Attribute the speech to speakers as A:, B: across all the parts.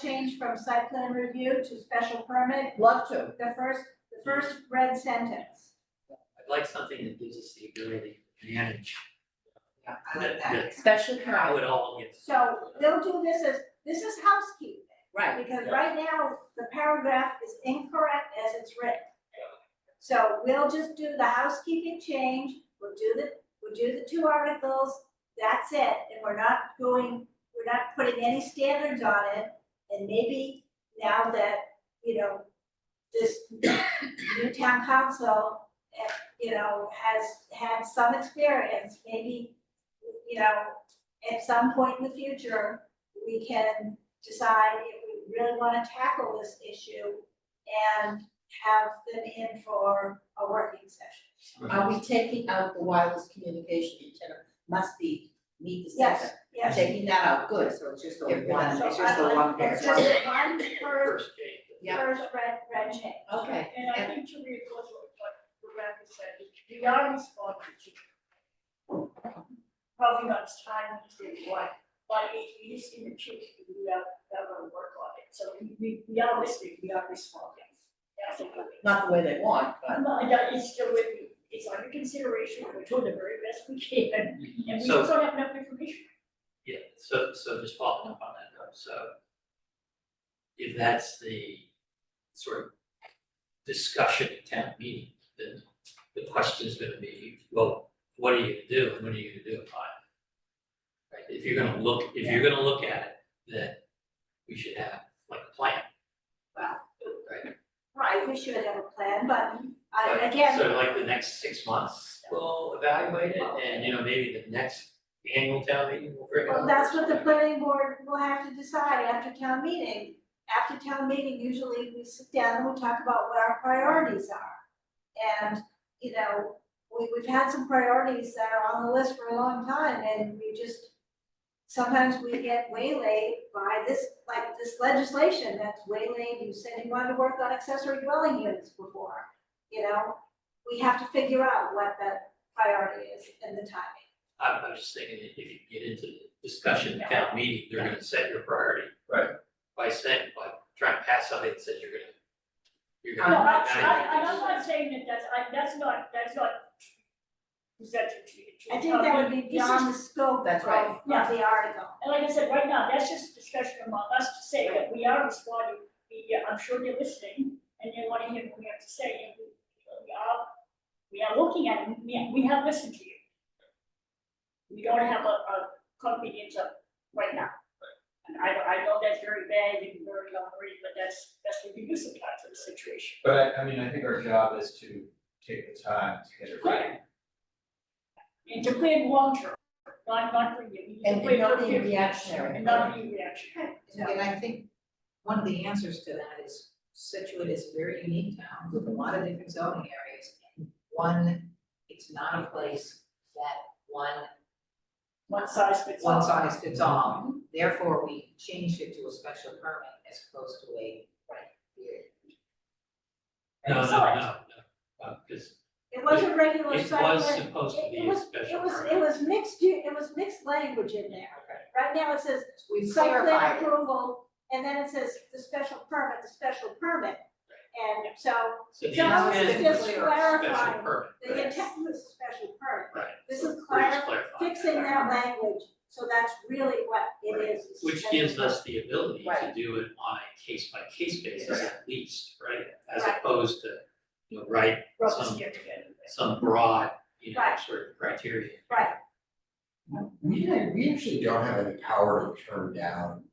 A: change from site plan review to special permit,
B: Love to.
A: the first, the first red sentence.
C: I'd like something that gives us the ability to manage
D: Yeah, I like that.
B: Special
C: how
B: permit,
C: it all gets.
A: So they'll do this as, this is housekeeping,
B: right.
A: because
C: Yeah.
A: right now, the paragraph is incorrect as it's written. So we'll just do the housekeeping change, we'll do the, we'll do the two articles, that's it, and we're not going, we're not putting any standards on it. And maybe now that, you know, this new town council, eh, you know, has had some experience, maybe, you know, at some point in the future, we can decide if we really wanna tackle this issue and have them in for a working session.
B: Are we taking out the wireless communication antenna must be meet the
A: Yes,
B: setback?
A: yes.
B: Taking that out, good.
D: So it's just the
B: Get rid of
D: one,
B: that.
D: it's just the
A: So I-
D: one
A: It's
D: picture.
A: just one first,
C: First change.
B: Yeah.
A: first red, red change.
B: Okay,
E: And I
B: and-
E: think to reinforce what what Rebecca said, we are responsible to. Probably not as time as we want, but it is in the truth, we have, we have to work on it, so we- we, we are listening, we are responding. That's what we-
B: not the way they want, but
E: No, that is still with me, it's under consideration, we're doing the very best we can, and we
C: So-
E: just don't have enough information.
C: Yeah, so, so just following up on that though, so if that's the sort of discussion at town meeting, then the question's gonna be, well, what are you gonna do and what are you gonna do about it? Right, if you're gonna look, if you're gonna look at it, then we should have like a plan.
A: Wow.
C: Right,
A: Right, we should have a plan, but I,
C: but
A: Uh, again,
C: so like the next six months, we'll evaluate it and, you know, maybe the next annual town meeting will bring it
A: well,
C: up.
A: that's what the planning board will have to decide after town meeting. After town meeting, usually we sit down and we talk about what our priorities are. And, you know, we, we've had some priorities that are on the list for a long time and we just, sometimes we get waylaid by this, like this legislation that's waylaid. You said you wanted to work on accessory dwelling units before, you know? We have to figure out what the priority is and the timing.
C: I'm, I'm just thinking, if you get into the discussion at town meeting, they're gonna set your priority.
F: Right.
C: By saying, by trying to pass something that says you're gonna, you're
E: No,
C: gonna.
E: I, I, I'm not saying that that's, I, that's not, that's not. presented to you.
A: I think that would be
E: This is
A: beyond the scope of,
B: That's right.
A: of the article.
E: And like I said, right now, that's just a discussion among us to say that we are responding, we, yeah, I'm sure they're listening, and they wanna hear what we have to say, and we, we are, we are looking at it, we, we have listened to you. We don't have a, a convenience of, right now. And I, I know that's very bad and very hungry, but that's, that's what we do sometimes in the situation.
F: But I, I mean, I think our job is to take the time to get it right.
E: And to plan long term, not, not for you, you
B: and
E: can plan
B: and
E: for
B: not
E: fifty
B: being
E: years,
B: reactionary.
E: and not be reactionary.
D: And I think one of the answers to that is Situate is a very unique town with a lot of different zoning areas. One, it's not a place that one,
E: one size fits all.
D: one size fits all, therefore we changed it to a special permit as opposed to a.
C: No, no, no, no, uh, cause
A: It was a regular
C: it
A: site
C: was
A: plan.
C: supposed to
A: It-
C: be
A: it
C: a
A: was-
C: special
A: It was,
C: permit.
A: it was mixed, u- it was mixed language in there. Right now it says
D: We
A: site plan
D: clarified it.
A: approval, and then it says the special permit, the special permit. And so
C: So the
A: that was
C: intent
A: just
C: was
A: clarifying.
C: special permit,
A: the
C: right?
A: intent was a special permit.
C: Right.
A: This is
C: We're
A: clar-
C: just clarifying.
A: fixing that language, so that's really what
C: Right.
A: it is. is
C: Which
A: special
C: gives
A: permit.
C: us the ability to
B: Right.
C: do it on a case by case basis at least, right? As
A: Right.
C: opposed to, you know, write
E: rub us
C: Some-
E: here together.
C: some broad, you know,
A: Right.
C: sort of criteria.
G: We don't- we actually don't have any power to turn down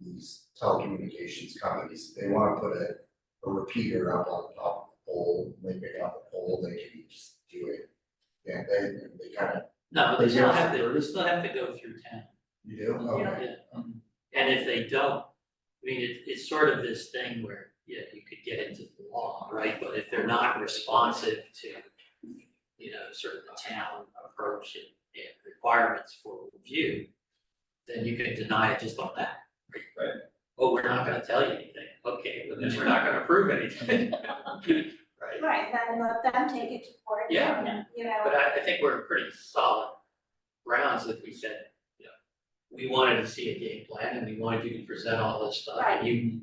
G: these telecommunications companies, If they wanna put a a repeater up on top of the pole, they pick up the pole, they can just do it. Yeah, they they kind of,
C: No,
G: But
C: they still
G: yes.
C: have to, they still have to go through town.
G: you do,
C: Yeah.
G: okay,
C: And if they don't, I mean, it, it's sort of this thing where, yeah, you could get into the law, right? But if they're not responsive to, you know, sort of the town approach and, and requirements for review, then you can deny it just on that.
F: Right.
C: Oh, we're not gonna tell you anything, okay, but then we're not gonna approve anything. Right,
A: Right, and then let them take it to court.
C: Yeah.
A: and, You know.
C: but I, I think we're pretty solid grounds if we said, you know, we wanted to see a game plan and we wanted you to present all this stuff. and You